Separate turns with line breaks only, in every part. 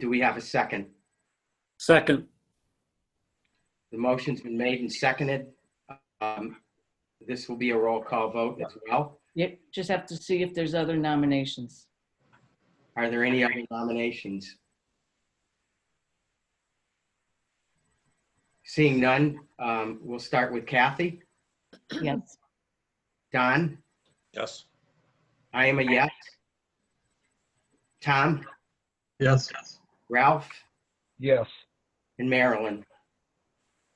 Do we have a second?
Second,
The motion's been made and seconded. Um, This will be a roll call vote as well.
Yep, just have to see if there's other nominations.
Are there any other nominations? Seeing none, um, we'll start with Kathy.
Yes.
Don,
Yes.
I am a yes. Tom,
Yes.
Ralph,
Yes.
and Marilyn.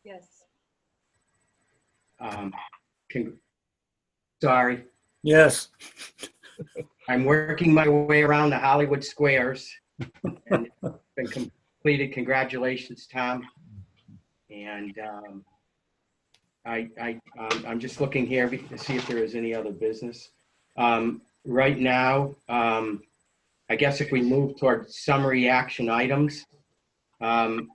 Yes.
Um, con- Sorry,
yes.
I'm working my way around the Hollywood squares. and it's Been completed. Congratulations, Tom. And um, I, I, um, I'm just looking here be- to see if there is any other business. Um, Right now, um, I guess if we move toward summary action items, um,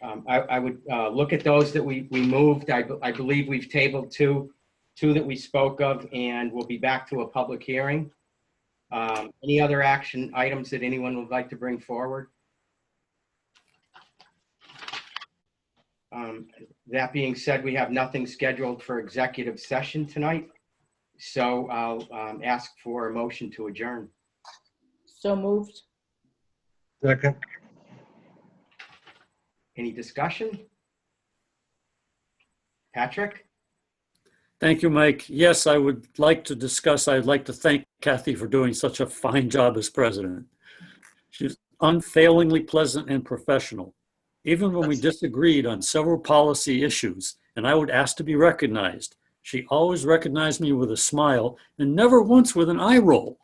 um, I, I would uh, look at those that we, we moved. I, be- I believe we've tabled two two that we spoke of, and we'll be back to a public hearing. Um, Any other action items that anyone would like to bring forward? Um, That being said, we have nothing scheduled for executive session tonight, so I'll um, ask for a motion to adjourn.
So moved?
Second.
Any discussion? Patrick?
Thank you, Mike. Yes, I would like to discuss, I'd like to thank Kathy for doing such a fine job as president. She's unfailingly pleasant and professional, even when we disagreed on several policy issues, and I would ask to be recognized. She always recognized me with a smile and never once with an eye roll.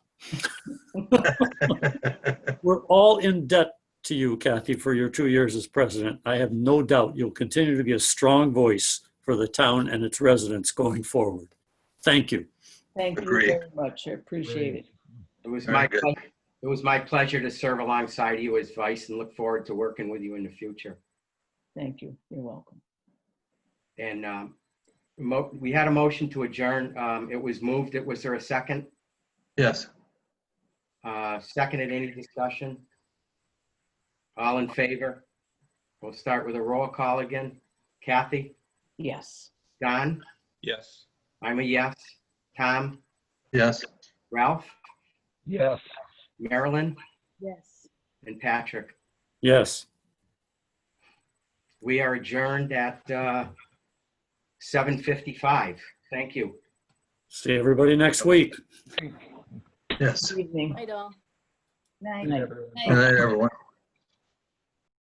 We're all in debt to you, Kathy, for your two years as president. I have no doubt you'll continue to be a strong voice for the town and its residents going forward. Thank you.
Thank you
Agree.
very much. I appreciate it.
It was
Very
my,
good.
pleasure- it was my pleasure to serve alongside you as vice and look forward to working with you in the future.
Thank you. You're welcome.
And um, mo- we had a motion to adjourn. Um, It was moved. It Was there a second?
Yes.
Uh, Seconded, any discussion? All in favor? We'll start with a roll call again. Kathy?
Yes.
Don?
Yes.
I'm a yes. Tom?
Yes.
Ralph?
Yes.
Marilyn?
Yes.
And Patrick?
Yes.
We are adjourned at uh, 7:55. Thank you.
See everybody next week.
Yes.
Good Evening.
I don't.
Night.
Good night, everyone.